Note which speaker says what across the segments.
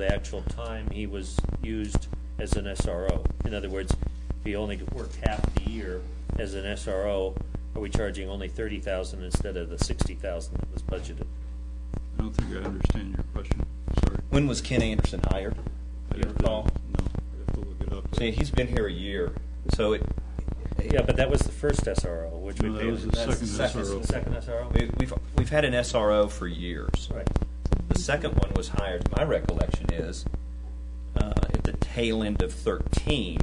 Speaker 1: the actual time he was used as an SRO. In other words, if he only worked half the year as an SRO, are we charging only thirty thousand instead of the sixty thousand that was budgeted?
Speaker 2: I don't think I understand your question, sorry.
Speaker 3: When was Ken Anderson hired?
Speaker 2: I
Speaker 3: Do you
Speaker 2: have to-
Speaker 3: recall?
Speaker 2: No, I have to look it up.
Speaker 3: See, he's been here a year, so it,
Speaker 1: Yeah, but that was the first SRO, which we
Speaker 2: No, that
Speaker 1: paid.
Speaker 2: was the
Speaker 1: That's
Speaker 2: second SRO.
Speaker 1: The second SRO?
Speaker 3: we- we've, we've had an SRO for years.
Speaker 1: Right.
Speaker 3: The second one was hired, my recollection is, uh, at the tail end of 13.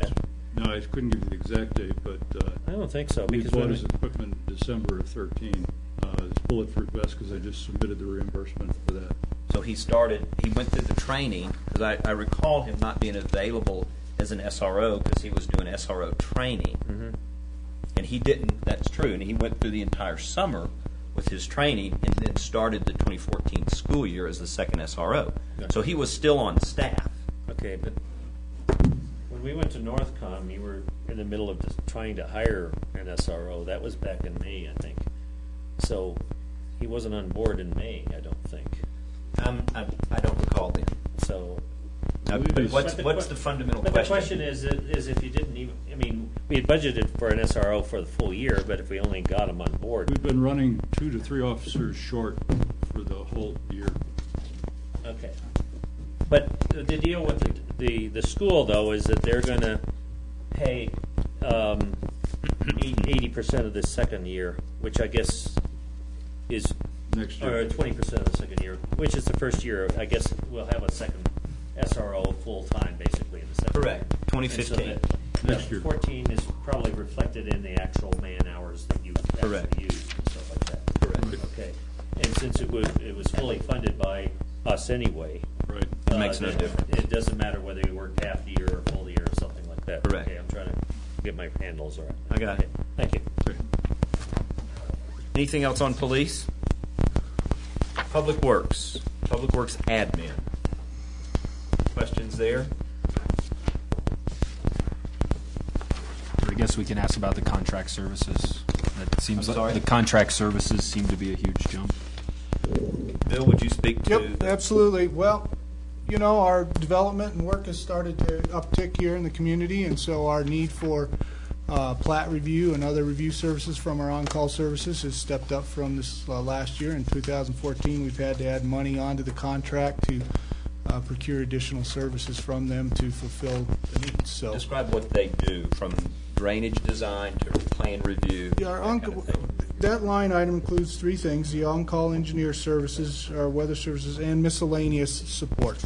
Speaker 2: No, I couldn't give you the exact date, but, uh.
Speaker 1: I don't think so,
Speaker 2: We
Speaker 1: because
Speaker 2: bought
Speaker 1: when,
Speaker 2: his equipment December of thirteen, uh, his bulletproof vest, because I just submitted the reimbursement for that.
Speaker 3: So he started, he went through the training, because I, I recall him not being available as an SRO because he was doing SRO training. And he didn't, that's true, and he went through the entire summer with his training and then started the 2014 school year as the second SRO. So he was still on staff.
Speaker 1: okay, but when we went to Northcom, you were in the middle of just trying to hire an SRO. That was back in May, I think. So he wasn't on board in May, I don't think.
Speaker 3: Um, I, I don't recall then.
Speaker 1: So.
Speaker 3: Now, but What's,
Speaker 1: But the
Speaker 3: what's
Speaker 1: que-
Speaker 3: the fundamental
Speaker 1: But
Speaker 3: question?
Speaker 1: the question is, is if you didn't even, I mean, we had budgeted for an SRO for the full year, but if we only got him on board.
Speaker 2: We've been running two to three officers short for the whole year.
Speaker 1: Okay. But the the deal with the, the, the school though is that they're gonna pay, um, eighty percent of the second year, which I guess is.
Speaker 2: Next
Speaker 1: Or
Speaker 2: year.
Speaker 1: twenty percent of the second year, which is the first year, I guess we'll have a second SRO full-time basically in the second year.
Speaker 3: Correct, 2015.
Speaker 1: And so that-
Speaker 2: Next
Speaker 1: that
Speaker 2: year.
Speaker 1: Fourteen is probably reflected in the actual man-hours that you
Speaker 3: Correct.
Speaker 1: actually used and stuff like that.
Speaker 3: Correct.
Speaker 1: Okay, and since it was, it was fully funded by us anyway.
Speaker 2: Right.
Speaker 3: It makes
Speaker 1: uh,
Speaker 3: no
Speaker 1: then
Speaker 3: difference.
Speaker 1: It doesn't matter whether you worked half the year or full the year or something like that.
Speaker 3: Correct.
Speaker 1: Okay, I'm trying to get my handles around.
Speaker 3: I got it.
Speaker 1: Thank you.
Speaker 2: Okay.
Speaker 3: Anything else on police? Public Works, Public Works admin. Questions there?
Speaker 4: I guess we can ask about the contract services. That seems
Speaker 3: I'm
Speaker 4: like,
Speaker 3: sorry?
Speaker 4: the contract services seem to be a huge jump.
Speaker 3: Bill, would you speak to?
Speaker 5: Yep, absolutely. Well, you know, our development and work has started to uptick here in the community, and so our need for uh, plat review and other review services from our on-call services has stepped up from this uh, last year. In 2014, we've had to add money onto the contract to uh, procure additional services from them to fulfill the needs, so.
Speaker 3: Describe what they do, from drainage design to plan review.
Speaker 5: Yeah, our
Speaker 3: that
Speaker 5: on,
Speaker 3: kind of thing.
Speaker 5: that line item includes three things, the on-call engineer services, our weather services, and miscellaneous support.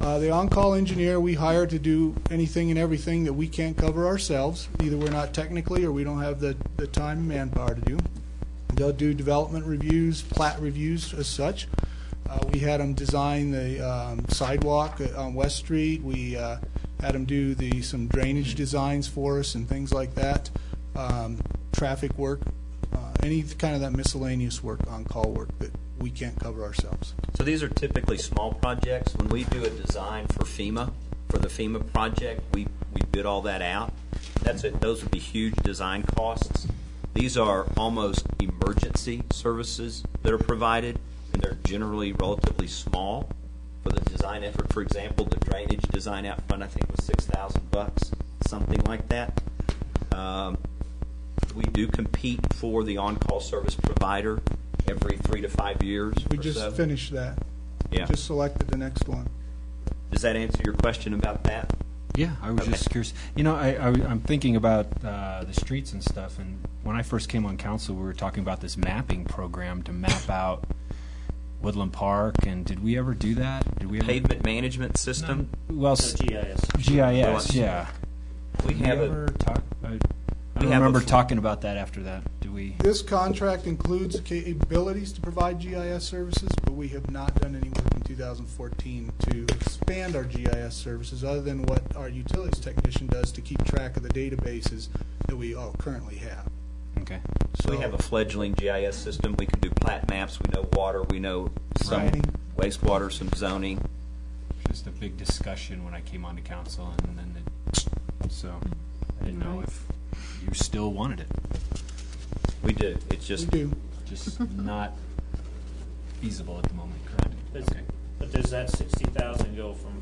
Speaker 5: Uh, the on-call engineer, we hire to do anything and everything that we can't cover ourselves, either we're not technically, or we don't have the, the time and manpower to do. They'll do development reviews, plat reviews as such. Uh, We had them design the um, sidewalk on West Street. We uh, had them do the, some drainage designs for us and things like that. Um, Traffic work, uh, any kind of that miscellaneous work, on-call work that we can't cover ourselves.
Speaker 3: So these are typically small projects. When we do a design for FEMA, for the FEMA project, we, we bid all that out. That's it, those would be huge design costs. These are almost emergency services that are provided, and they're generally relatively small for the design effort. For example, the drainage design out front, I think, was six thousand bucks, something like that. Um, We do compete for the on-call service provider every three to five years
Speaker 5: We
Speaker 3: or so.
Speaker 5: just finished that.
Speaker 3: Yeah.
Speaker 5: Just selected the next one.
Speaker 3: Does that answer your question about that?
Speaker 4: Yeah, I was just curious. You know, I, I, am thinking about uh, the streets and stuff. And when I first came on council, we were talking about this mapping program to map out Woodland Park. And did we ever do that? Did we ever?
Speaker 3: Pavement management system?
Speaker 4: Well, s-
Speaker 1: So GIS.
Speaker 4: GIS. Yeah.
Speaker 3: We
Speaker 4: Did
Speaker 3: have
Speaker 4: we
Speaker 3: a,
Speaker 4: ever talk? I, I
Speaker 3: We
Speaker 4: don't
Speaker 3: have a
Speaker 4: remember
Speaker 3: f-
Speaker 4: talking about that after that. Do we?
Speaker 5: This contract includes capabilities to provide GIS services, but we have not done any work in 2014 to expand our GIS services, other than what our utilities technician does to keep track of the databases that we all currently have.
Speaker 4: Okay.
Speaker 3: we have a fledgling GIS system. We can do plat maps. We know water. We know some
Speaker 5: Right.
Speaker 3: wastewater, some zoning.
Speaker 4: just a big discussion when I came onto council, and then it, so I didn't know if you still wanted it.
Speaker 3: We do. It's
Speaker 5: We
Speaker 3: just,
Speaker 5: do.
Speaker 4: Just not feasible at the moment, correct?
Speaker 1: Does-
Speaker 4: Okay.
Speaker 1: But does that sixty thousand go from